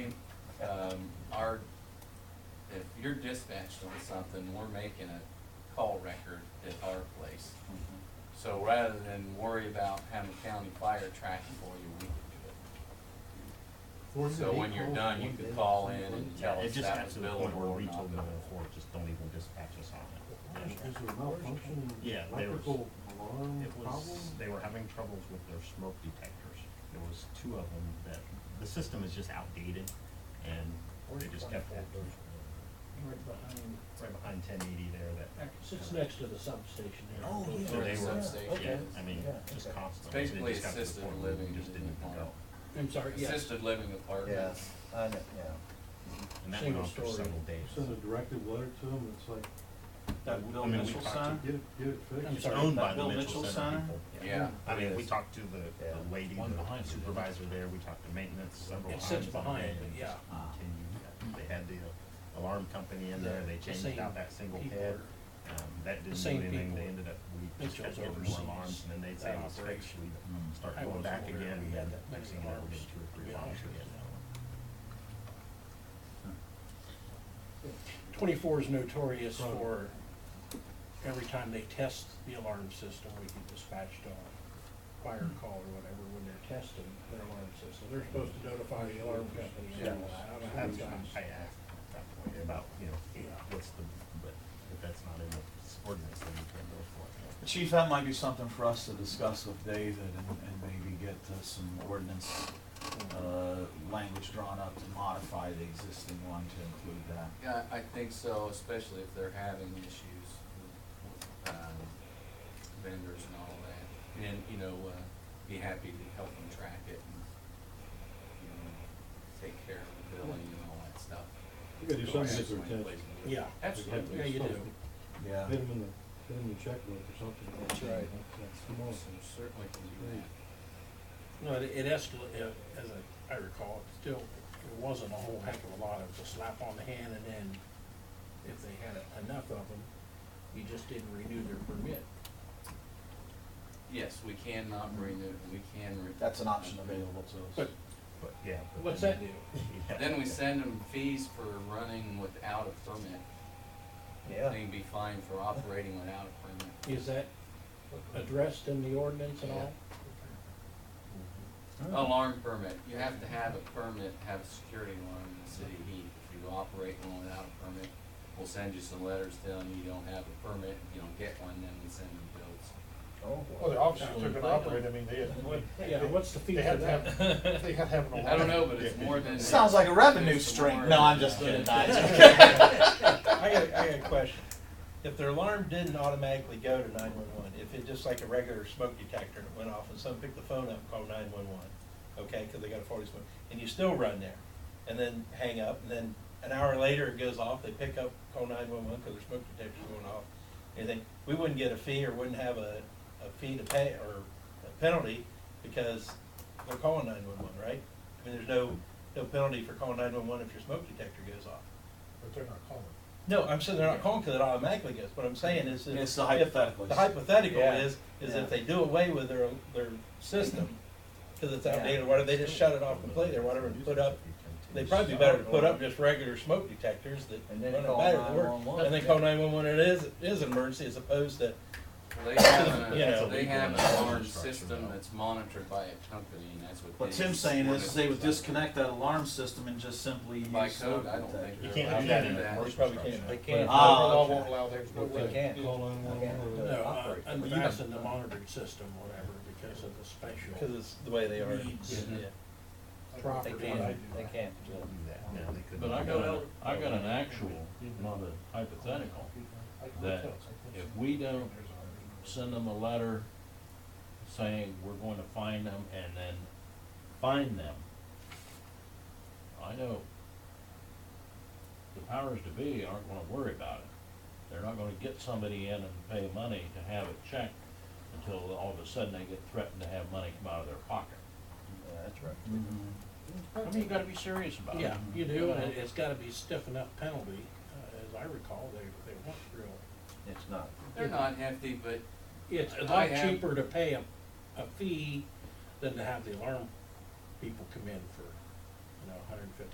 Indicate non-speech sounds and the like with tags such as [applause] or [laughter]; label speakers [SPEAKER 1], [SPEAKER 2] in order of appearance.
[SPEAKER 1] Um, you're dispatched on something, we're making a call record at our place. So rather than worry about having county fire track it for you, we can do it. So when you're done, you can call in and
[SPEAKER 2] Yeah,
[SPEAKER 1] tell
[SPEAKER 2] it
[SPEAKER 1] us
[SPEAKER 2] just
[SPEAKER 1] that
[SPEAKER 2] got
[SPEAKER 1] was
[SPEAKER 2] to the
[SPEAKER 1] billable
[SPEAKER 2] point where
[SPEAKER 1] or
[SPEAKER 2] we
[SPEAKER 1] not
[SPEAKER 2] told them
[SPEAKER 1] billable.
[SPEAKER 2] before, just don't even dispatch us on
[SPEAKER 3] Is
[SPEAKER 2] it.
[SPEAKER 3] there a malfunction, in
[SPEAKER 2] Yeah,
[SPEAKER 3] the
[SPEAKER 2] they were-
[SPEAKER 3] electrical alarm
[SPEAKER 2] It was,
[SPEAKER 3] problem?
[SPEAKER 2] they were having troubles with their smoke detectors. There was two of them that, the system is just outdated and they just kept that.
[SPEAKER 4] Right behind, uh,
[SPEAKER 2] Right behind ten eighty there that.
[SPEAKER 4] sits next to the substation there.
[SPEAKER 2] Oh,
[SPEAKER 1] Or
[SPEAKER 2] yeah.
[SPEAKER 1] the
[SPEAKER 2] They were-
[SPEAKER 1] substation.
[SPEAKER 2] Yeah,
[SPEAKER 4] Okay.
[SPEAKER 2] I mean,
[SPEAKER 4] Yeah,
[SPEAKER 2] just
[SPEAKER 4] okay.
[SPEAKER 2] constant.
[SPEAKER 1] It's
[SPEAKER 2] It
[SPEAKER 1] basically
[SPEAKER 2] just got to the
[SPEAKER 1] assisted
[SPEAKER 2] point where we
[SPEAKER 1] living
[SPEAKER 2] Just didn't
[SPEAKER 1] in
[SPEAKER 2] go.
[SPEAKER 1] one.
[SPEAKER 4] I'm sorry, yes.
[SPEAKER 1] Assisted living apartment,
[SPEAKER 5] Yes, I know, yeah.
[SPEAKER 2] And that went
[SPEAKER 4] Single
[SPEAKER 2] on for
[SPEAKER 4] story.
[SPEAKER 2] several days.
[SPEAKER 3] Send a directive letter to them, it's like,
[SPEAKER 2] I
[SPEAKER 6] That Bill
[SPEAKER 2] mean, we
[SPEAKER 6] Mitchell
[SPEAKER 2] talked to-
[SPEAKER 6] sign?
[SPEAKER 3] get it, get it
[SPEAKER 4] I'm
[SPEAKER 3] fixed.
[SPEAKER 2] It's
[SPEAKER 4] sorry,
[SPEAKER 2] owned
[SPEAKER 6] that
[SPEAKER 2] by the
[SPEAKER 6] Bill
[SPEAKER 2] Mitchell
[SPEAKER 6] Mitchell
[SPEAKER 2] Center
[SPEAKER 6] sign?
[SPEAKER 2] people.
[SPEAKER 1] yeah.
[SPEAKER 2] I mean, we
[SPEAKER 5] Yes.
[SPEAKER 2] talked to the
[SPEAKER 5] Yeah.
[SPEAKER 2] the lady,
[SPEAKER 6] One
[SPEAKER 2] the
[SPEAKER 6] behind it.
[SPEAKER 2] supervisor there, we talked to maintenance several
[SPEAKER 4] It
[SPEAKER 2] times.
[SPEAKER 4] sits behind
[SPEAKER 2] and
[SPEAKER 4] it,
[SPEAKER 2] they
[SPEAKER 4] yeah.
[SPEAKER 2] just
[SPEAKER 1] Ah.
[SPEAKER 2] continued. They had the alarm company in there, they
[SPEAKER 4] The
[SPEAKER 2] changed
[SPEAKER 4] same
[SPEAKER 2] out that single
[SPEAKER 4] people.
[SPEAKER 2] head. Um, that didn't do
[SPEAKER 4] same
[SPEAKER 2] anything, they
[SPEAKER 4] people.
[SPEAKER 2] ended up, we just kept
[SPEAKER 4] Mitchell's
[SPEAKER 2] getting
[SPEAKER 4] oversees
[SPEAKER 2] more alarms, and then they'd say,
[SPEAKER 4] that
[SPEAKER 2] well, it's fixed,
[SPEAKER 4] operation.
[SPEAKER 6] Hmm.
[SPEAKER 2] we start
[SPEAKER 4] I
[SPEAKER 2] going
[SPEAKER 4] wasn't
[SPEAKER 2] back
[SPEAKER 4] aware
[SPEAKER 2] again,
[SPEAKER 4] we
[SPEAKER 2] and
[SPEAKER 4] had
[SPEAKER 2] then
[SPEAKER 4] that
[SPEAKER 2] next
[SPEAKER 4] many
[SPEAKER 2] thing you know, we
[SPEAKER 4] alarms,
[SPEAKER 2] did two or
[SPEAKER 4] to
[SPEAKER 2] three
[SPEAKER 4] be
[SPEAKER 2] alarms
[SPEAKER 4] honest with
[SPEAKER 2] again.
[SPEAKER 4] Twenty-four is notorious
[SPEAKER 3] Right.
[SPEAKER 4] for, every time they test the alarm system, we get dispatched on fire call or whatever when they're testing their alarm system. They're supposed to notify the alarm company and all that. I don't know how many
[SPEAKER 2] That's why
[SPEAKER 4] times.
[SPEAKER 2] I asked at that point about, you know, what's the, but if that's not in the ordinance, then you can't go for it. yeah.
[SPEAKER 6] Chief, that might be something for us to discuss with David and, and maybe get uh, some ordinance, uh, language drawn up to modify the existing one to include that.
[SPEAKER 1] Yeah, I think so, especially if they're having issues with, with, um, vendors and all that. And, you know, uh, be happy to help them track it and, you know, take care of the billing and all that stuff.
[SPEAKER 3] You gotta do
[SPEAKER 1] Go ask
[SPEAKER 3] something with their
[SPEAKER 1] my
[SPEAKER 3] attention.
[SPEAKER 1] place to do it.
[SPEAKER 4] Yeah.
[SPEAKER 1] Absolutely.
[SPEAKER 4] Yeah, you do.
[SPEAKER 6] Yeah.
[SPEAKER 3] Hit them in the, hit them in the checkbook or something.
[SPEAKER 4] That's right.
[SPEAKER 3] That's the most.
[SPEAKER 1] Awesome, Certainly can do that.
[SPEAKER 4] No, it it escal- uh as I- I recall, it still, it wasn't a whole heck of a lot, it was a slap on the hand, and then if they had enough of them, you just didn't renew their permit.
[SPEAKER 1] Yes, we can not renew, we can. re-
[SPEAKER 6] That's an option available to us.
[SPEAKER 4] But
[SPEAKER 2] But, yeah. but
[SPEAKER 4] what's
[SPEAKER 2] then-
[SPEAKER 4] that do?
[SPEAKER 2] [laughs] Yeah.
[SPEAKER 1] Then we send them fees for running without a permit.
[SPEAKER 5] Yeah.
[SPEAKER 1] They'd be fined for operating without a permit.
[SPEAKER 4] Is that addressed in the ordinance and all?
[SPEAKER 1] Alarm permit, you have to have a permit, to have a security alarm in the city of Heath. If you operate one without a permit, we'll send you some letters telling you you don't have a permit, if you don't get one, then we send you bills.
[SPEAKER 5] Oh,
[SPEAKER 7] Well, the officers took it operate, I mean, they
[SPEAKER 4] Yeah,
[SPEAKER 7] had,
[SPEAKER 4] what's the fee
[SPEAKER 7] they
[SPEAKER 4] for
[SPEAKER 7] had to
[SPEAKER 4] that?
[SPEAKER 7] have, they had to have an alarm.
[SPEAKER 1] [laughs] I don't know, but it's more
[SPEAKER 5] [laughs]
[SPEAKER 1] than.
[SPEAKER 6] Sounds like a revenue
[SPEAKER 1] There's some more-
[SPEAKER 6] stream. No, I'm just kidding. No,
[SPEAKER 1] [laughs]
[SPEAKER 6] it's okay.
[SPEAKER 5] I got, I got a question. If their alarm didn't automatically go to nine-one-one, if it just like a regular smoke detector and it went off and someone picked the phone up and called nine-one-one, okay, because they got a forty smoke, and you still run there, and then hang up, and then an hour later it goes off, they pick up, call nine-one-one because their smoke detector's going off, and they, we wouldn't get a fee or wouldn't have a, a fee to pay or a penalty because they're calling nine-one-one, right? I mean, there's no, no penalty for calling nine-one-one if your smoke detector goes off.
[SPEAKER 7] But they're not calling.
[SPEAKER 5] No, I'm saying they're not calling because it automatically goes. What I'm saying is, is
[SPEAKER 6] It's the hypothetical.
[SPEAKER 5] the hypothetical
[SPEAKER 6] Yeah.
[SPEAKER 5] is, is
[SPEAKER 6] Yeah.
[SPEAKER 5] if they do away with their their system because it's outdated, why don't they just shut it off completely or whatever and put up? They'd probably be better to put up just regular smoke detectors that
[SPEAKER 6] And then
[SPEAKER 5] run a
[SPEAKER 6] call
[SPEAKER 5] battery at work,
[SPEAKER 6] 911.
[SPEAKER 5] and then call nine one one. It is it is an emergency as opposed to
[SPEAKER 1] They [coughs] have,
[SPEAKER 5] Yeah.
[SPEAKER 1] a- they have an alarm
[SPEAKER 2] Structure,
[SPEAKER 1] system
[SPEAKER 2] though.
[SPEAKER 1] that's monitored by a company, and that's what.
[SPEAKER 6] What
[SPEAKER 1] they-
[SPEAKER 6] Tim's saying is they would disconnect that alarm system and just simply use.
[SPEAKER 1] By code, I don't
[SPEAKER 6] smoke
[SPEAKER 1] think.
[SPEAKER 2] You
[SPEAKER 1] they're
[SPEAKER 2] can't
[SPEAKER 1] allowed
[SPEAKER 2] do
[SPEAKER 1] to
[SPEAKER 2] that in a
[SPEAKER 5] they
[SPEAKER 2] commercial
[SPEAKER 5] probably
[SPEAKER 2] structure.
[SPEAKER 5] can't.
[SPEAKER 7] They
[SPEAKER 5] can't.
[SPEAKER 6] Ah,
[SPEAKER 7] Law
[SPEAKER 6] okay.
[SPEAKER 7] won't allow, there's no way.
[SPEAKER 3] Call nine one
[SPEAKER 4] No,
[SPEAKER 3] one or.
[SPEAKER 4] uh,
[SPEAKER 5] Operate.
[SPEAKER 4] and
[SPEAKER 6] Well, you
[SPEAKER 4] that's
[SPEAKER 6] don't-
[SPEAKER 4] in the monitored system, or whatever, because of the
[SPEAKER 5] because
[SPEAKER 4] special
[SPEAKER 5] it's the way they are.
[SPEAKER 4] Needs.
[SPEAKER 5] Yeah.
[SPEAKER 4] property.
[SPEAKER 5] can't.
[SPEAKER 2] They don't do that. No, they couldn't
[SPEAKER 8] But I
[SPEAKER 2] do
[SPEAKER 8] got,
[SPEAKER 2] that.
[SPEAKER 8] a- I got an actual, not a hypothetical. That if we don't Send them a letter saying we're going to find them and then find them. I know the powers to be aren't gonna worry about it. They're not gonna get somebody in and pay money to have it checked until all of a sudden they get threatened to have money come out of their pocket.
[SPEAKER 5] Yeah, that's right.
[SPEAKER 6] Mm-hmm.
[SPEAKER 8] I mean, you gotta be serious about it.
[SPEAKER 4] Yeah, you do, and it- it's gotta be stiff enough penalty, uh, as I recall, they, they want real
[SPEAKER 5] It's not.
[SPEAKER 1] They're not hefty, but
[SPEAKER 4] It's a
[SPEAKER 1] I
[SPEAKER 4] lot
[SPEAKER 1] have-
[SPEAKER 4] cheaper to pay a, a fee than to have the alarm people come in for, you know, hundred and fifty